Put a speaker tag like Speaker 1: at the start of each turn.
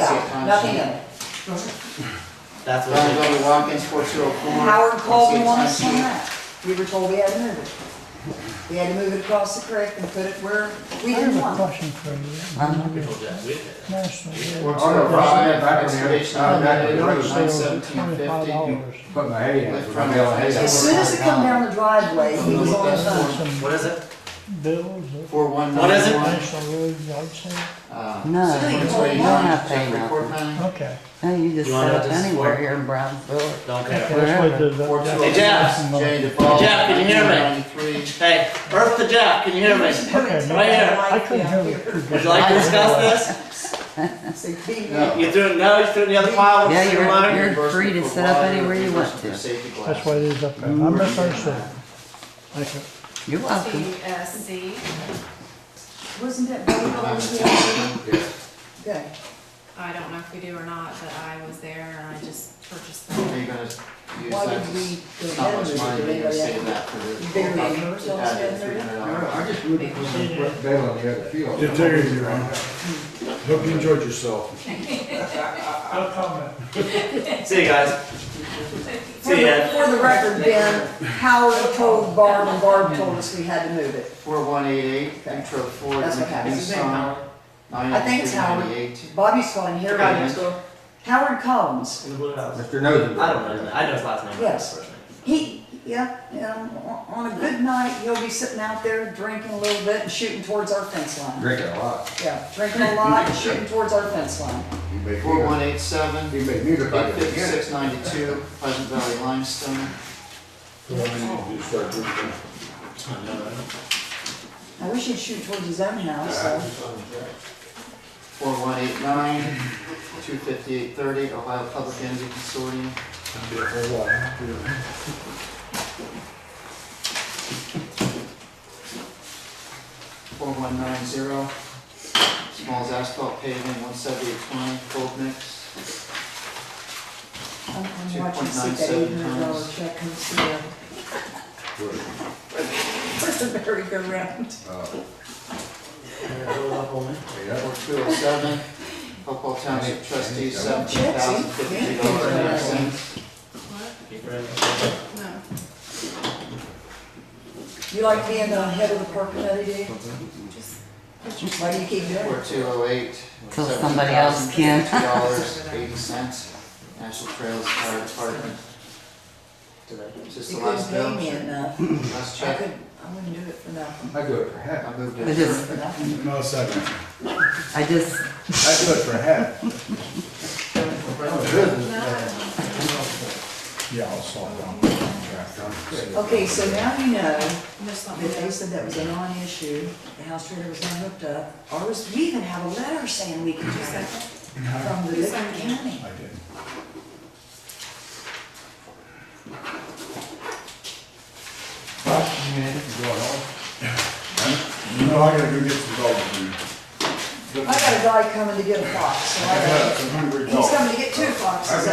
Speaker 1: Fine,
Speaker 2: nothing
Speaker 1: sure.
Speaker 2: of it.
Speaker 3: That's what
Speaker 1: Brown
Speaker 3: they,
Speaker 1: Brother Watkins, four zero four.
Speaker 2: Howard called me once on
Speaker 1: 1619.
Speaker 2: that. We were told we had to move it. We had to move it across the creek and put it where we
Speaker 4: I
Speaker 2: didn't
Speaker 4: have
Speaker 2: want.
Speaker 4: a
Speaker 2: it.
Speaker 4: question for
Speaker 3: we
Speaker 4: you.
Speaker 3: told you that, we did that.
Speaker 4: National.
Speaker 5: Well,
Speaker 1: On the
Speaker 5: sir,
Speaker 1: five,
Speaker 5: uh, back in the-
Speaker 1: excavation
Speaker 5: uh,
Speaker 1: on
Speaker 5: back
Speaker 1: that,
Speaker 5: in the
Speaker 1: nine
Speaker 5: road,
Speaker 4: Twenty-five
Speaker 1: seventeen fifty.
Speaker 4: dollars.
Speaker 5: Put my head
Speaker 1: Lift
Speaker 5: in.
Speaker 1: from
Speaker 5: I'm yelling, hey,
Speaker 1: Yeah.
Speaker 2: As soon as it come down the driveway, he was on the phone.
Speaker 4: Some
Speaker 3: What is it?
Speaker 4: bills that
Speaker 1: Four one uh,
Speaker 3: What is it?
Speaker 1: nine one.
Speaker 4: National Road Yard Sale,
Speaker 6: No, you don't have to pay
Speaker 1: oh
Speaker 6: nothing.
Speaker 4: okay.
Speaker 6: No, you just
Speaker 3: You wanna
Speaker 6: set up
Speaker 3: just
Speaker 6: anywhere
Speaker 3: work?
Speaker 6: here in Brownsville.
Speaker 3: Don't
Speaker 4: Okay,
Speaker 3: care.
Speaker 4: let's wait till the-
Speaker 3: oh. Hey, Jeff.
Speaker 1: oh Jay DePaul.
Speaker 3: Jeff, can you hear me? Hey, Earth to Jeff, can you hear me?
Speaker 4: Okay, no, I couldn't hear you too
Speaker 3: Would
Speaker 4: good.
Speaker 3: you like to discuss this?
Speaker 2: I said, "Beat me."
Speaker 1: No.
Speaker 3: You threw, no, you threw the other pile with
Speaker 6: Yeah,
Speaker 3: the
Speaker 6: you're-
Speaker 3: single
Speaker 1: oh
Speaker 3: line?
Speaker 6: you're free to set up anywhere you want to.
Speaker 4: That's why it is up there, I misunderstood. Thank you.
Speaker 6: You're welcome.
Speaker 7: TSC.
Speaker 2: Wasn't that voted on Okay.
Speaker 7: I don't know if we do or not, but I was there and I just purchased
Speaker 1: Are you
Speaker 7: them.
Speaker 1: gonna use
Speaker 2: Why did
Speaker 1: that to-
Speaker 2: we go
Speaker 1: How
Speaker 2: down
Speaker 1: much
Speaker 2: with it?
Speaker 1: money
Speaker 2: Did
Speaker 1: do you
Speaker 2: anybody
Speaker 1: save
Speaker 2: have
Speaker 1: that for the?
Speaker 2: Big neighbors don't
Speaker 1: Add in
Speaker 2: spend their-
Speaker 1: $300.
Speaker 5: I just moved it from the bed on the other field.
Speaker 8: Yeah, take it, Your Honor. Hope you enjoyed yourself.
Speaker 4: No comment.
Speaker 3: See you guys.
Speaker 2: For
Speaker 3: See
Speaker 2: the-
Speaker 3: ya.
Speaker 2: for the record, Ben, Howard told Barb, and Barb told us we had to move it.
Speaker 1: Four one eight eight, intro four,
Speaker 2: That's what happens. It's
Speaker 1: Nissan, nine
Speaker 2: I think
Speaker 1: oh
Speaker 2: it's
Speaker 1: three
Speaker 2: Howard.
Speaker 1: ninety-eight.
Speaker 2: Bobby's calling here
Speaker 1: Forgot
Speaker 2: right
Speaker 1: his
Speaker 2: now. Howard Collins.
Speaker 5: Mr. Nosey.
Speaker 3: I don't know, his name. I know his last name. but
Speaker 2: Yes.
Speaker 3: his first name.
Speaker 2: He, yeah, um, on on a good night, he'll be sitting out there drinking a little bit and shooting towards our fence line.
Speaker 5: Drinking a lot.
Speaker 2: Yeah, drinking a lot and shooting towards our fence line.
Speaker 5: You make
Speaker 1: Four one
Speaker 5: me,
Speaker 1: eight seven,
Speaker 5: you make me look like
Speaker 1: eight
Speaker 5: a beginner.
Speaker 1: fifty-six ninety-two, Pleasant Valley Limestone.
Speaker 8: So I need to do is start drinking.
Speaker 3: I know, right?
Speaker 2: I wish he'd shoot towards his own house, though.
Speaker 1: Four one eight nine, two fifty-eight thirty, Ohio Public Energy Consortium.
Speaker 8: Be a whole lot happier.
Speaker 1: Four one nine zero, Smalls Asphalt Paving, one seventy-eight twenty, Gold Mix.
Speaker 2: I'm I'm watching to see if that eight
Speaker 1: 2.97
Speaker 2: hundred dollar
Speaker 1: times.
Speaker 2: check comes through. Where's the merry-go-round?
Speaker 5: Oh,
Speaker 3: Yeah, roll up on me.
Speaker 5: yeah.
Speaker 1: Four two oh seven, Hopewell Township Trustees, seventeen thousand fifty-two dollars and ninety cents.
Speaker 7: What?
Speaker 3: Keep running.
Speaker 7: No.
Speaker 2: You like being the head of the park committee, do you? Why do you keep doing it?
Speaker 1: Four two oh eight,
Speaker 6: Till
Speaker 1: seventeen
Speaker 6: somebody else
Speaker 1: thousand
Speaker 6: can.
Speaker 1: fifty-two dollars, eighty cents, National Trails Fire Department. Is this
Speaker 2: You
Speaker 1: the last
Speaker 2: couldn't
Speaker 1: bill?
Speaker 2: pay me enough.
Speaker 1: Last
Speaker 2: I
Speaker 1: check?
Speaker 2: couldn't, I wouldn't do it for nothing.
Speaker 5: I do it for half.
Speaker 1: I moved
Speaker 6: I
Speaker 1: it.
Speaker 6: just,
Speaker 2: For nothing.
Speaker 8: No, second.
Speaker 6: I just,
Speaker 5: I do it for half. Oh,
Speaker 8: Yeah, I'll solve that.
Speaker 2: Okay, so now you know
Speaker 7: Just let me
Speaker 2: that
Speaker 7: know.
Speaker 2: they said that was a non-issue, the house trailer was not hooked up. Ours, we even have a letter saying we can do that from the Liver County.
Speaker 8: I did. No, I gotta go get some dogs. dude.
Speaker 2: I got a guy coming to get a fox, so I
Speaker 8: I got
Speaker 2: got,
Speaker 8: some hungry dogs.
Speaker 2: he's coming to get two foxes.